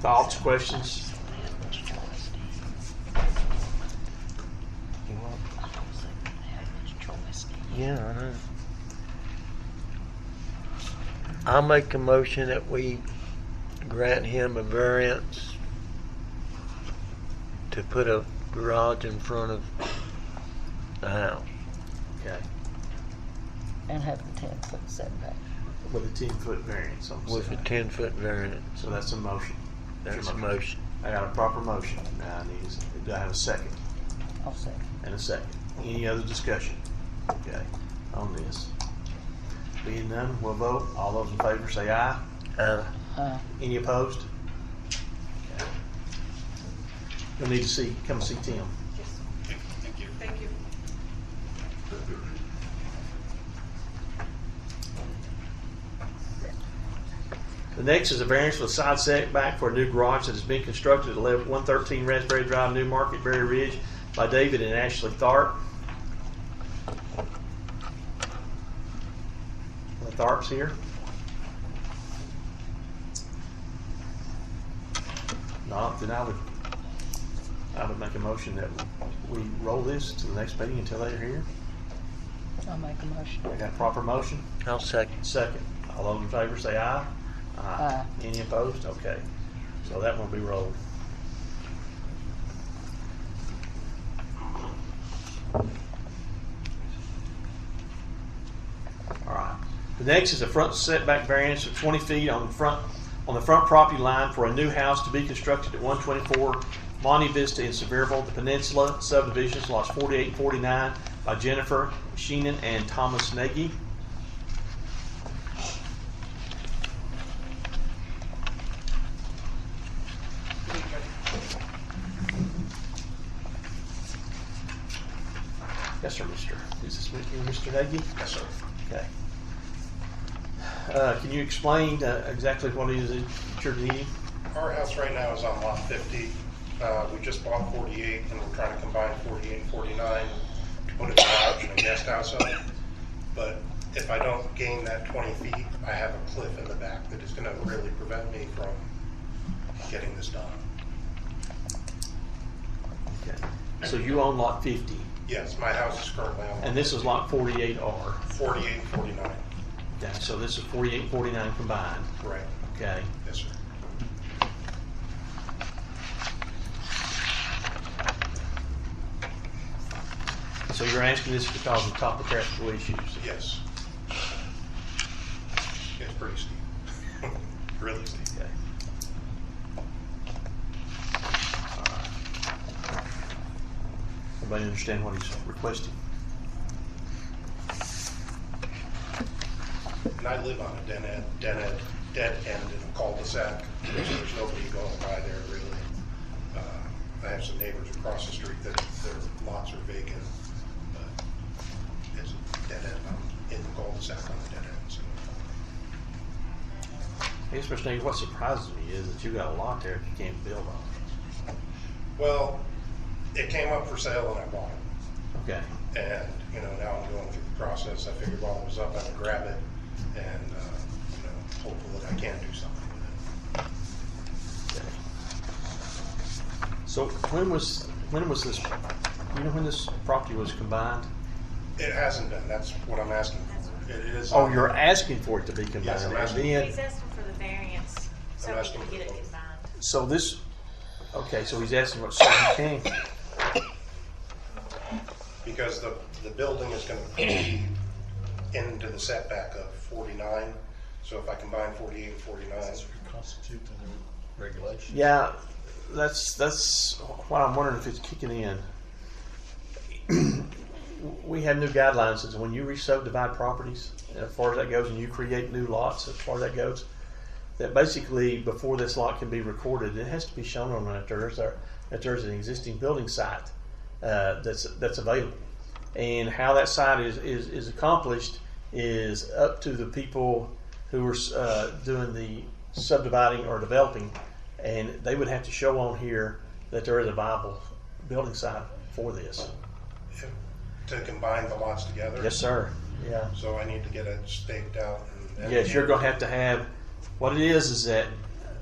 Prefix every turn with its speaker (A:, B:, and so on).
A: Thoughts, questions?
B: You want? Yeah, I know. I'll make a motion that we grant him a variance to put a garage in front of the house.
A: Okay.
C: and have the ten foot setback.
A: With a ten foot variance on the
B: With a
A: side.
B: ten foot variance.
A: So that's a motion.
B: That's a motion.
A: I got a proper motion. Now I need, is- do I have a second?
C: I'll say.
A: And a second. Any other discussion? Okay, on this. Being none, we'll vote. All those in favor say aye.
B: Uh,
C: Uh,
A: Any opposed? You'll need to see, come see Tim.
D: Thank you.
A: The next is a variance for the side setback for a new garage that has been constructed at 11 113 Raspberry Drive, New Market, Berry Ridge by David and Ashley Tharp. The Tharp's here. Not, then I would, I would make a motion that we roll this to the next meeting until they're here.
C: I'll make a motion.
A: I got a proper motion?
B: I'll second.
A: Second. All those in favor say aye.
C: Aye.
A: Any opposed? Okay. So that one will be rolled. All right. The next is a front setback variance of 20 feet on the front, on the front property line for a new house to be constructed at 124 Monte Vista in Sevierville, the Peninsula subdivisions, lots 48 and 49 by Jennifer Sheenan and Thomas Nagy. Yes, sir, mister. Is this with you, Mr. Nagy? Yes, sir. Okay. Uh, Can you explain uh, exactly what it is that you're needing?
E: Our house right now is on lot 50. Uh, We just bought 48, and we're trying to combine 48 and 49 to put a garage and a guest house on. But if I don't gain that 20 feet, I have a cliff in the back that is going to really prevent me from getting this done.
A: Okay. So you own lot 50,
E: Yes, my house is currently on
A: and this is lot 48R.
E: 48 and 49.
A: Okay, so this is 48, 49 combined,
E: Right,
A: okay?
E: yes, sir.
A: So you're asking this because of topographical issues?
E: Yes. It's pretty steep. Really steep.
A: Okay. All right. Everybody understand what he's requesting?
E: And I live on a dead end, dead end, dead end in a cul-de-sac. There's nobody going by there really. Uh, I have some neighbors across the street that their lots are vacant, but it's a dead end. I'm in the cul-de-sac on the dead end, so.
A: I guess, Mr. Nagy, what surprises me is that you got a lot there that you can't build on.
E: Well, it came up for sale and I bought it.
A: Okay,
E: And, you know, now I'm going through the process. I figured while it was up, I would grab it and, uh, you know, hopefully I can do something with it.
A: okay. So when was, when was this, you know when this property was combined?
E: It hasn't been. That's what I'm asking for. It is.
A: Oh, you're asking for it to be combined?
E: Yes, I'm asking.
A: and
D: He's
A: then-
D: asking for the variance, so
E: I'm
D: we
E: asking
D: can
E: for
D: get it
E: the-
D: combined.
A: So this, okay, so he's asking what, so he can,
E: because the, the building is gonna be into the setback of forty-nine, so if I combine forty-eight and forty-nine,
F: constitute the new regulation.
A: yeah, that's, that's what I'm wondering if it's kicking in. We have new guidelines, since when you re-subdivide properties, and as far as that goes, and you create new lots, as far as that goes, that basically before this lot can be recorded, it has to be shown on that there's a, that there's an existing building site uh, that's that's available, and how that site is is, is accomplished is up to the people who are uh, doing the subdividing or developing, and they would have to show on here that there is a viable building site for this.
E: if- to combine the lots together.
A: Yes, sir. Yeah.
E: So I need to get it staked out and.
A: Yes, you're gonna have to have, what it is, is that